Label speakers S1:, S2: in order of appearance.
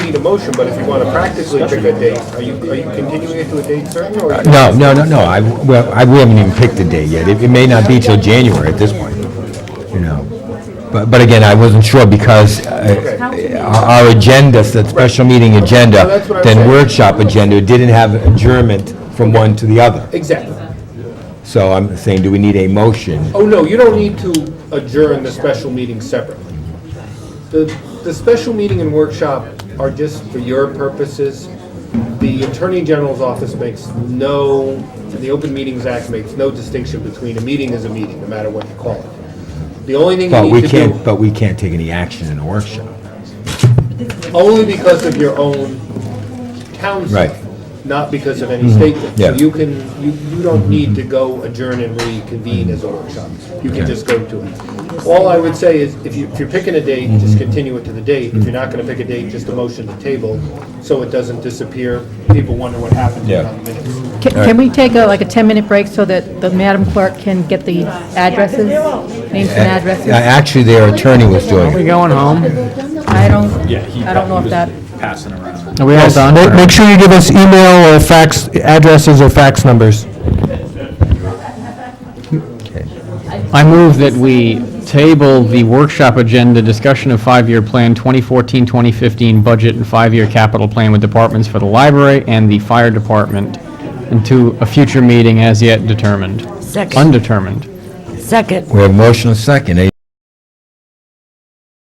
S1: need a motion, but if you want to practically pick a date, are you, are you continuing it to a date certain, or? are you-
S2: No, no, no, no, I, well, I, we haven't even picked a date yet. It, it may not be till January at this point, you know. But, but again, I wasn't sure because uh, our our agenda, that special meeting
S1: No,
S2: agenda,
S1: that's what I'm
S2: then
S1: saying.
S2: workshop agenda, didn't have adjournment from one to the other.
S1: Exactly.
S2: So I'm saying, do we need a motion?
S1: Oh, no, you don't need to adjourn the special meeting separately. The, the special meeting and workshop are just for your purposes. The Attorney General's office makes no, and the Open Meetings Act makes no distinction between a meeting is a meeting, no matter what you call it. The only thing
S2: But
S1: you
S2: we
S1: need to
S2: can't,
S1: do,
S2: but we can't take any action in a workshop.
S1: only because of your own town
S2: Right. Mm-hmm.
S1: stuff, not because of any state. law.
S2: yeah. Mm-hmm.
S1: So you can, you, you don't need to go adjourn and reconvene as a workshop. You can just go to it. All I would say is, if you, if you're picking a date, just
S2: Mm-hmm.
S1: continue it to the date. If you're not gonna pick a date, just a motion to table, so it doesn't disappear. People wonder what happened to it
S2: Yeah.
S1: on the minutes.
S3: Can- Can we take a, like a 10-minute break so that the Madam Clerk can get the addresses, names and addresses?
S2: Uh, Actually, their attorney was doing it.
S4: going home?
S3: I don't, I don't know if that,
S4: Are we all
S5: Ma- Make sure you give us email or fax addresses or fax numbers.
S4: I move that we table the workshop agenda, discussion of five-year plan, 2014, 2015 budget and five-year capital plan with departments for the library and the fire department into a future meeting as yet determined.
S6: Second.
S4: Undetermined.
S6: Second.
S2: We have motion and second. Any